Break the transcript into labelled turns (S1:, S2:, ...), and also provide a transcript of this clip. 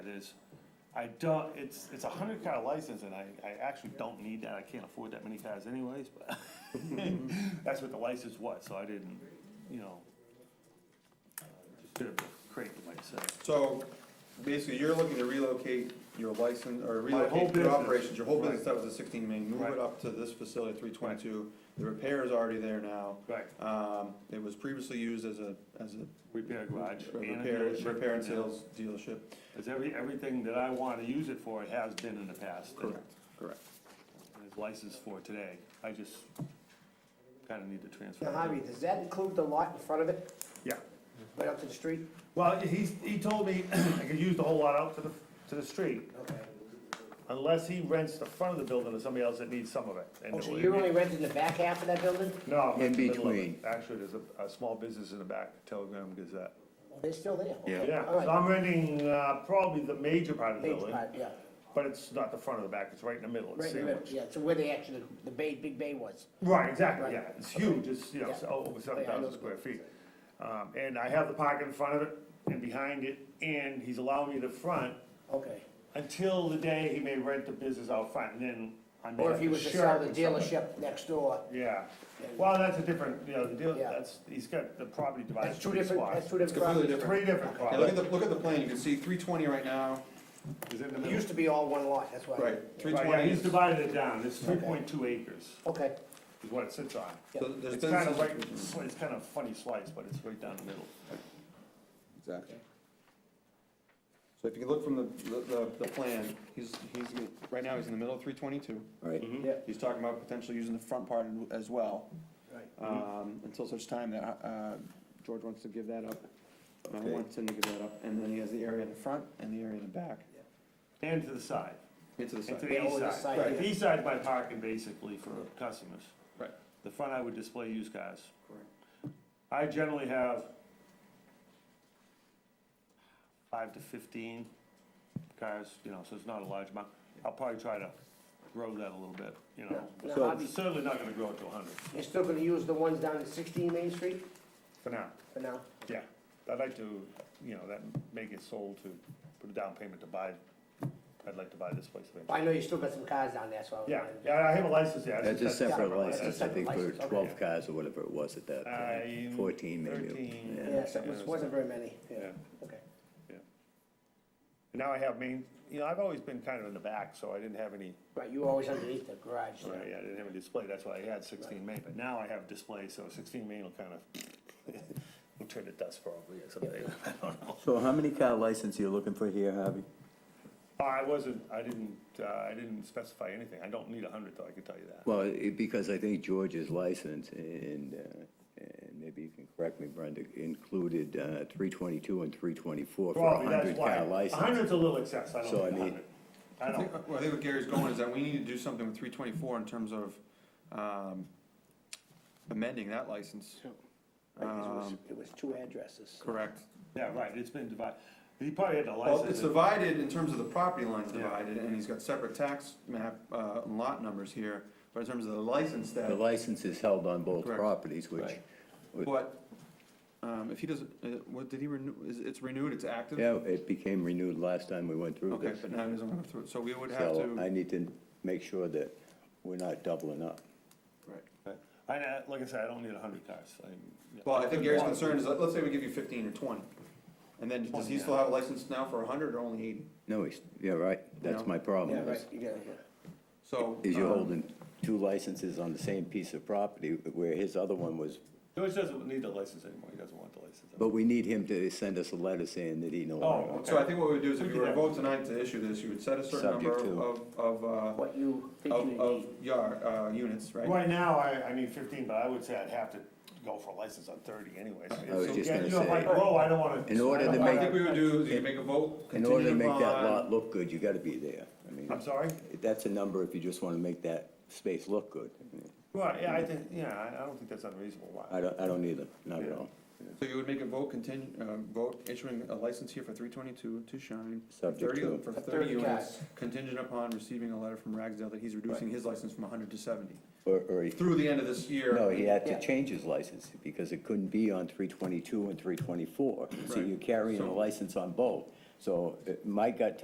S1: It is, I don't, it's, it's a hundred car license and I, I actually don't need that, I can't afford that many cars anyways, but that's what the license was, so I didn't, you know, uh, just did a crate with myself.
S2: So, basically, you're looking to relocate your license, or
S1: My whole
S2: relocate your
S1: business.
S2: operations, your whole
S1: Right.
S2: business that was a sixteen main, move
S1: Right.
S2: it up to this facility, three twenty-two. The repair is already there now.
S1: Right,
S2: Um, it was previously used as a, as a
S1: repair garage. and a
S2: repair,
S1: dealership.
S2: repair and sales dealership.
S1: Cause every, everything that I wanna use it for, it has been in the past.
S2: correct.
S1: And It's licensed for today, I just kinda need to transfer.
S3: Now, Javi, does that include the lot in front of it,
S1: Yeah.
S3: right up to the street?
S1: Well, he's, he told me I could use the whole lot out to the, to the street,
S3: Okay.
S1: unless he rents the front of the building to somebody else that needs some of it. And
S3: Oh, so
S1: it would
S3: you're
S1: be-
S3: only renting the back half of that building?
S1: No.
S4: In
S1: the middle of it.
S4: between.
S1: Actually, there's a, a small business in the back, Telegram Gazette.
S3: Oh, They're still there?
S4: Yeah.
S1: Yeah,
S3: All right.
S1: so I'm renting, uh, probably the major part of the
S3: Big
S1: building,
S3: part, yeah.
S1: but it's not the front of the back, it's right in the middle, it's
S3: Right, in the middle,
S1: sandwiched.
S3: yeah, so where they actually, the bay, big bay was.
S1: Right, exactly,
S3: Right.
S1: yeah, it's huge, it's, you know, it's
S3: Yeah.
S1: over seven
S3: Yeah, I know
S1: thousand
S3: the
S1: square
S3: building.
S1: feet. Um, and I have the park in front of it and behind it, and he's allowing me the front
S3: Okay.
S1: until the day he may rent the business out front, and then I may
S3: Or
S1: have
S3: if he
S1: to
S3: was to
S1: share
S3: sell
S1: it
S3: the
S1: with somebody.
S3: dealership next door,
S1: Yeah, well, that's a different, you know, the deal,
S3: Yeah.
S1: that's, he's got the property divided.
S3: that's two
S1: into
S3: different,
S1: spots.
S3: that's two
S2: It's completely
S3: different
S1: Three
S2: different.
S3: properties.
S1: different
S2: Yeah, look
S1: properties.
S2: at the, look at the plan, you can see three twenty right now,
S1: Is it in the
S3: It
S1: middle?
S3: used to be all one lot, that's why.
S2: right, three
S1: Right, yeah,
S2: twenty.
S1: he's divided it down, it's three point two acres
S3: Okay,
S1: is what it sits on.
S2: So there's
S1: It's
S2: been
S1: kind of
S2: some-
S1: right, it's it's kind of funny slice, but it's right down the middle.
S2: Exactly. So if you look from the, the, the plan, he's, he's, right now, he's in the middle of three twenty-two.
S4: Right,
S1: Mm-hmm.
S3: yeah,
S2: He's talking about potentially using the front part as well,
S3: right.
S2: um, until such time that, uh, George wants to give that up. And I
S4: Okay.
S2: want him to give that up, and then he has the area in the front and the area in the back,
S1: And to the side,
S2: into the
S1: and to
S2: side.
S3: Yeah,
S1: the
S3: over the
S1: east side.
S3: side,
S1: The east side's my parking basically for customers.
S2: Right.
S1: The front I would display used cars.
S2: Correct.
S1: I generally have five to fifteen cars, you know, so it's not a large amount. I'll probably try to grow that a little bit, you know.
S3: Now,
S4: So-
S3: Javi,
S1: Certainly not gonna grow it to hundred
S3: you're still gonna use the ones down at sixteen Main Street
S1: for now.
S3: for now?
S1: Yeah, I'd like to, you know, that, make it sold to, put a down payment to buy, I'd like to buy this place eventually.
S3: I know you still got some cars down there, so. I was
S1: Yeah,
S3: wondering.
S1: yeah, I have a license, yeah.
S4: that's a separate
S3: That's
S4: license,
S3: a
S4: I think, for
S3: separate license,
S4: twelve
S1: okay.
S4: cars or whatever it was at that
S1: I'm
S4: point, fourteen maybe.
S1: 13.
S3: Yeah, so it
S1: Yeah.
S3: wasn't very many, yeah,
S1: Yeah.
S3: okay.
S1: And Now I have main, you know, I've always been kind of in the back, so I didn't have any,
S3: Right, you were always underneath the garage there.
S1: right, yeah, I didn't have a display, that's why I had sixteen main, but now I have display, so sixteen main will kind of, will turn to dust probably or something, I don't know.
S4: So how many car license are you looking for here, Harvey?
S1: I wasn't, I didn't, uh, I didn't specify anything, I don't need a hundred though, I can tell you that.
S4: Well, it- because I think George's license and, uh, and maybe you can correct me, Brenda, included, uh, three twenty-two and three twenty-four for a
S1: Probably
S4: hundred
S1: that's why,
S4: car
S1: a
S4: license.
S1: hundred's a little excess, I
S4: So, I
S1: don't need a
S4: mean-
S1: hundred. I
S2: I
S1: don't,
S2: think, well, I think what Gary's going is that we need to do something with three twenty-four in terms of, um, amending that license.
S3: Right, 'cause it
S2: Um,
S3: was- It was two addresses.
S2: Correct.
S1: yeah, right, it's been divided, he probably had a
S2: Well, it's
S1: license, it.
S2: divided in terms of the property lines
S1: Yeah.
S2: divided, and he's got separate tax map, uh, and lot numbers here, but in terms of the license that,
S4: The license is held on both
S2: Correct.
S4: properties, which,
S2: but, um, if he doesn't, uh, what, did he renew, is, it's renewed, it's active?
S4: yeah, it became renewed last time we went through
S2: Okay,
S4: this.
S2: but now he doesn't go through it, so we would have
S4: So I
S2: to,
S4: need to make sure that we're not doubling up.
S2: right.
S1: I, I- like I said, I don't need a hundred cars, I. yeah.
S2: Well, I think Gary's
S1: Why?
S2: concern is, let- let's say we give you fifteen or twenty, and then does he still have a license now for hundred or only eighty?
S4: No, he's, yeah, right, that's
S2: Yeah.
S4: my problem.
S3: Yeah,
S4: is-
S3: right, you got it, yeah.
S2: So.
S4: Is you're
S2: um,
S4: holding two licenses on the same piece of property where his other one was,
S1: George doesn't need the license anymore, he doesn't want the license.
S4: but we need him to send us a letter saying that he no
S1: Oh,
S4: longer.
S2: So I think what we would do is
S1: We
S2: if you
S1: could
S2: were to
S1: have-
S2: vote tonight to issue this, you would set a certain number
S4: Subject
S2: of, of, uh,
S3: What you think you
S2: of, of
S3: need.
S2: yard, uh, units, right?
S1: Right now, I, I need fifteen, but I would say I'd have to go for a license on thirty anyways.
S4: I was
S1: So,
S4: just
S1: yeah,
S4: gonna
S1: you know,
S4: say-
S1: like, whoa, I don't wanna.
S4: In order to
S1: I don't
S2: I
S4: make-
S2: think
S1: wanna-
S2: we would do, is you make a vote,
S4: In order to
S2: contingent
S4: make that
S2: upon,
S4: lot look good, you gotta be there. I mean,
S1: I'm sorry?
S4: that's a number if you just wanna make that space look good.
S1: Well, yeah, I think, yeah, I, I don't think that's unreasonable, why?
S4: I don't, I don't either, not at all.
S2: so you would make a vote contingent, uh, vote issuing a license here for three twenty-two to shine. for
S4: Subject
S2: 30
S4: to-
S2: For
S3: For
S2: thirty
S3: 30
S2: units,
S3: cats.
S2: contingent upon receiving a letter from Ragsdale that he's reducing his license from hundred to seventy.
S4: Or, or, he-
S2: Through the end of this year.
S4: no, he had
S3: Yeah.
S4: to change his license because it couldn't be on three twenty-two and three twenty-four. So
S2: Right.
S4: you're carrying a
S2: So-
S4: license on both. So uh, my gut